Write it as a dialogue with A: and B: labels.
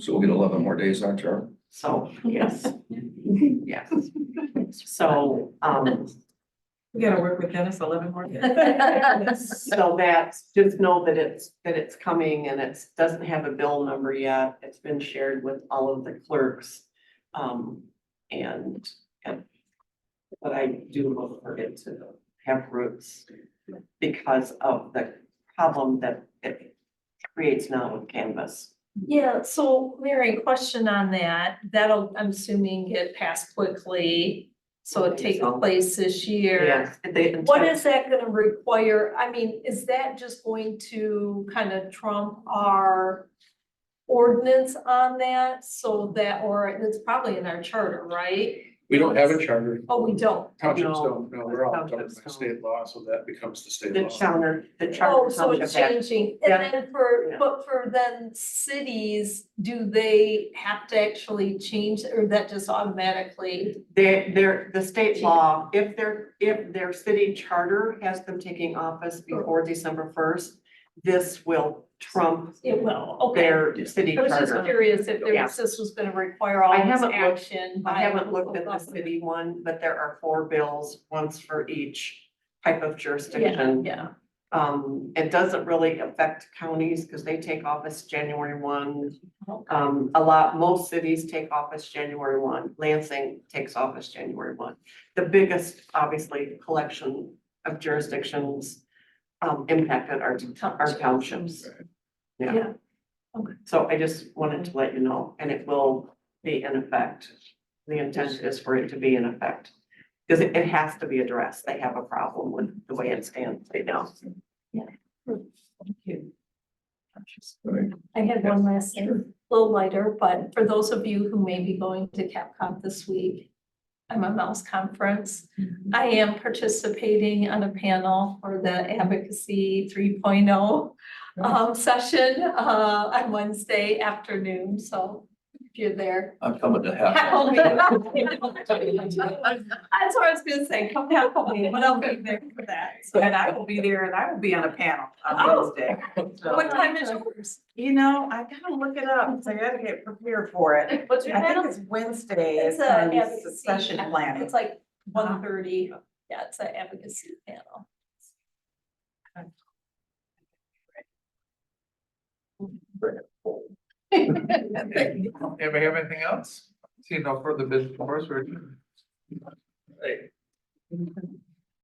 A: So we'll get eleven more days on Charlie.
B: So, yes. Yes. So, um,
C: We gotta work with Dennis eleven more. days.
B: so that's, just know that it's, that it's coming and it's, doesn't have a bill number yet. It's been shared with all of the clerks. Um, and, and but I do look for it to have roots because of the problem that it creates now with Canvas.
D: Yeah, so Mary, question on that, that'll, I'm assuming get passed quickly, so it takes place this year.
B: Yes, they-
D: What is that gonna require, I mean, is that just going to kind of trump our ordinance on that, so that, or it's probably in our charter, right?
E: We don't have a charter,
D: Oh, we don't,
E: townships
B: No.
E: don't, no, we're all governed
B: Townships
E: by
B: don't.
E: state law, so that becomes the state
B: The
E: law.
B: charter, the charter.
D: oh, so it's
B: township act.
D: changing,
B: Yeah.
D: and then for,
B: Yeah.
D: but for then cities, do they have to actually change, or that just automatically?
B: They, they're, the state law, if their, if their city charter has them taking office before December first, this will trump
D: It will, okay.
B: their city
D: I was just
B: charter.
D: curious if there
B: Yeah.
D: was, this was gonna require all
B: I
D: this
B: haven't looked-
D: action by.
B: I haven't looked at the city one, but there are four bills, once for each type of
D: Yeah,
B: jurisdiction.
D: yeah,
B: Um, it doesn't really affect counties because they take office January one.
D: okay,
B: Um, a lot, most cities take office January one, Lansing takes office January one. The biggest, obviously, collection of jurisdictions um impacted our our townships. Yeah.
D: Yeah. Okay.
B: So I just wanted to let you know, and it will be in effect. The intent is for it to be in effect. Because it it has to be addressed. They have a problem with the way it stands right now.
D: I had one last thing, a little lighter, but for those of you who may be going to CapCon this week, I'm a mouse conference. I am participating on a panel for the advocacy three um, session, uh, on Wednesday afternoon, so if you're there,
A: I'm coming to
D: Heckle
A: half.
D: me. That's what I was gonna say, come heckle me, but I'll be there for that. So,
C: And I will be there and I will be on a panel
D: Oh.
C: on Wednesday. So-
D: What time is yours?
C: You know, I gotta look it up, so I gotta get prepared for it.
D: What's
C: I think it's Wednesday, it's
D: a
C: gonna be
D: advocacy-
C: succession planning.
D: It's like one thirty, yeah, it's an advocacy panel.
F: Anybody have anything else? See no further business for us, we're adjourned.